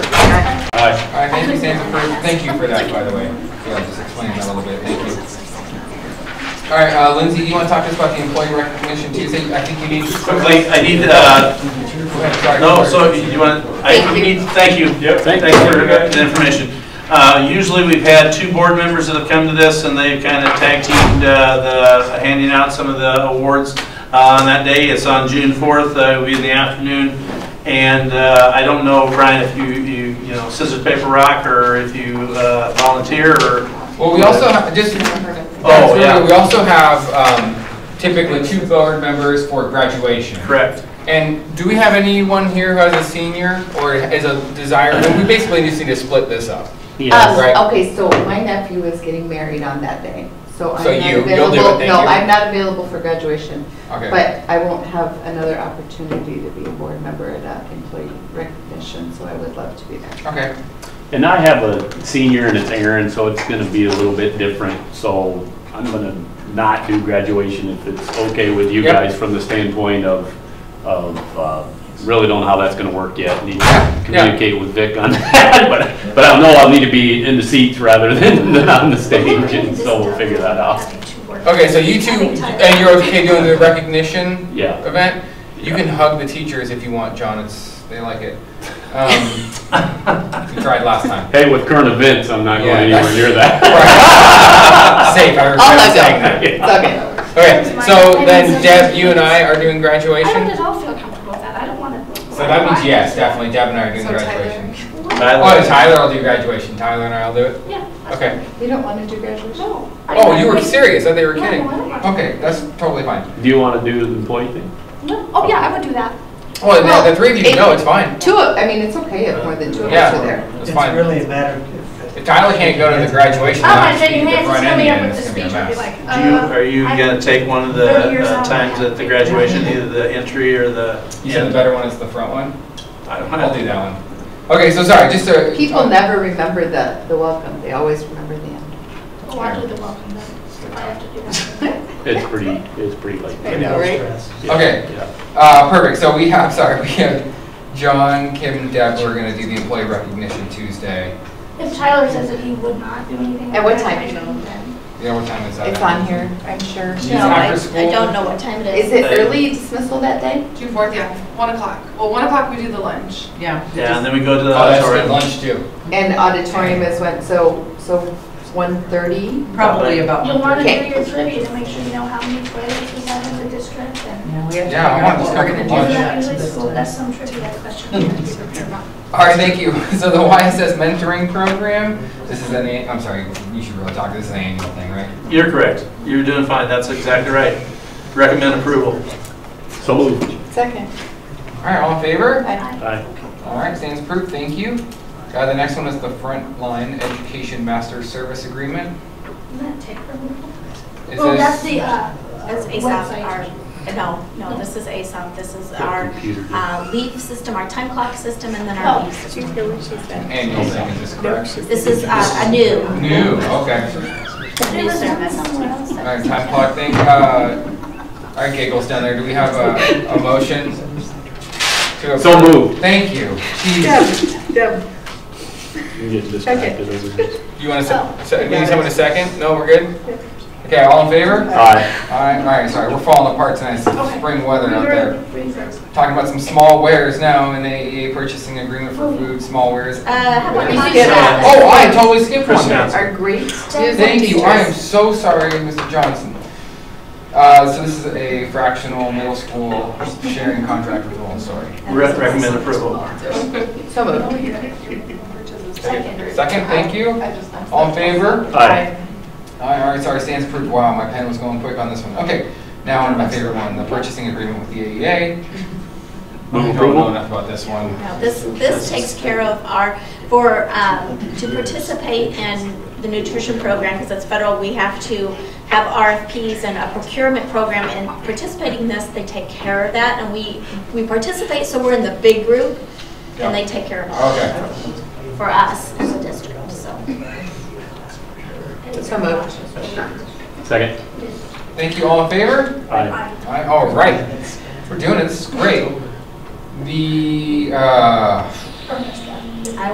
Thank you for that, by the way. Yeah, just explain that a little bit. Thank you. All right, uh, Lindsay, you want to talk to us about the employee recognition Tuesday? I think you need. Quickly, I need, uh, Go ahead, sorry. no, so you want, I Thank you. need, thank you. Yep. Thank you for the information. Uh, Usually, we've had two board members that have come to this, and they've kind of tag teamed uh, the, handing out some of the awards uh, on that day. It's on June 4th, uh, it'll be in the afternoon. And uh, I don't know, Brian, if you, you, you know, scissors, paper, rock, or if you uh, volunteer, or Well, we also, ha- just remember that. Oh, that's really- yeah. We also have um, typically two board members for graduation. correct. And do we have anyone here who has a senior or is a desire? well, We basically just need to split this up. Um, Right. Okay, so my nephew is getting married on that day, so I'm So not you- you'll do it, available. thank No, you. I'm not available for graduation, Okay. but I won't have another opportunity to be a board member at uh, employee recognition, so I would love to be there. Okay. And I have a senior and it's Aaron, so it's gonna be a little bit different, so I'm gonna not do graduation if it's okay with you Yep. guys from the standpoint of, of, uh, really don't know how that's gonna work yet. Need to communicate with Vic on that, but, but I know I'll need to be in the seats rather than than on the stage, and so we'll figure that out. Okay, so you two, and you're okay doing the recognition Yeah, event? You can hug the teachers if you want, John. It's, they like it. Um, We tried last time. hey, with current events, I'm not Yeah. going anywhere near that. Safe, I I'll regret let saying go. that. It's okay. Okay, so then Deb, you and I are doing graduation? I don't at all feel comfortable with that. I don't want to. So that means yes, definitely. Deb and I are doing graduation. Tyler? Oh, and Tyler, I'll do graduation. Tyler and I will do it. Yeah. that's Okay. fine. You don't want to do graduation? No. I- Oh, you were serious? I thought you were No, kidding. no, I don't. Okay, that's totally fine. Do you wanna do the employee thing? No. Oh, yeah, I would do that. Well, no, Oh, the three of you, no, it's fine. Two, of- I mean, it's okay if more than two of us are Yeah, there. it's It's fine. really a matter of. If Tyler can't go to the graduation, Oh, my then shake your hands, the just front coming up end, with and the it's gonna speech, be a I'd be mess. like, Do you, uh. are you I- gonna take one of the Thirty years uh, old. times at the graduation, either the entry or the? You said the better one is the front one? I don't I'll do know. that one. Okay, so sorry, just to. People never remember the, the welcome, they always remember the end. Oh, I'll do the welcome then. If I have to do that. It's pretty, it's pretty late. I know, right? Yeah, Okay. yeah. Uh, perfect, so we have, sorry, we have John, Kim, and Deb, we're gonna do the employee recognition Tuesday. If Tyler says that he would not do anything. At what like time? that, then- Yeah, what time is that? It's on here, I'm sure. Is it No, I, after I school? don't know what time it Is is. it early dismissal that day? June fourth, yeah, one o'clock. Well, one o'clock we do the lunch. Yeah. Yeah, and then we go to Oh, the that's good auditorium. lunch too. And auditorium is when, so, so one thirty? Probably about. You'll want to do Okay. your trivia to make sure you know how many toilets we have in the district and. Yeah, I want this covered for Is lunch. that usually school? That's some trivia question. we have to be prepared about. All right, thank you. So the YSS mentoring program, this is an, an- I'm sorry, you should really talk, this is an annual thing, right? You're correct. You're doing fine. That's exactly right. Recommend approval. So moved. Second. All right, all in favor? Aye. All right, stands approved, thank you. Uh, The next one is the Frontline Education Master Service Agreement. Isn't that tick removal? Is Oh, that's this, the, uh. That's website. ASAP, our, no, no, this is ASAP. This is our Computer. uh, leaf system, our time clock system, and then Oh. our leaf system. an annual thing, is this correct? This is uh, a new. New, okay. New service. All right, time clock thing. uh, All right, giggles down there, do we have a, a motion? to So approve? moved. Thank you. Jeez. Deb. You get distracted over here. You want Oh. to, se- need someone to second? No, we're good? Okay, all in favor? Aye. All right, all right, sorry, we're falling apart tonight, it's Okay. spring weather out Remember there. the freezers. Talking about some small wares now, and the AEA purchasing agreement for food, small wares. Uh, how about we Yeah. do that? Oh, I totally skipped one there. Our great music Thank you, I am teachers. so sorry, Mr. Johnson. Uh, so this is a fractional middle school sharing contract with Lowell, sorry. Re- Recommend approval. So moved. Second, thank you. All in favor? Aye. All right, all right, sorry, stands approved. Wow, my pen was going quick on this one. Okay, now on to my favorite one, the purchasing agreement with the AEA. Move I don't approval. know enough about this one. Now, This, this takes care of our, for, um, to participate in the nutrition program, because it's federal, we have to have RFPs and a procurement program, and participating in this, they take care of that, and we, we participate, so we're in the big group, and they take care of it Okay. for us as a district, so. So moved. Second. Thank you, all in favor? Aye. All right, All right, we're doing it, this is great. The, uh, Perfect.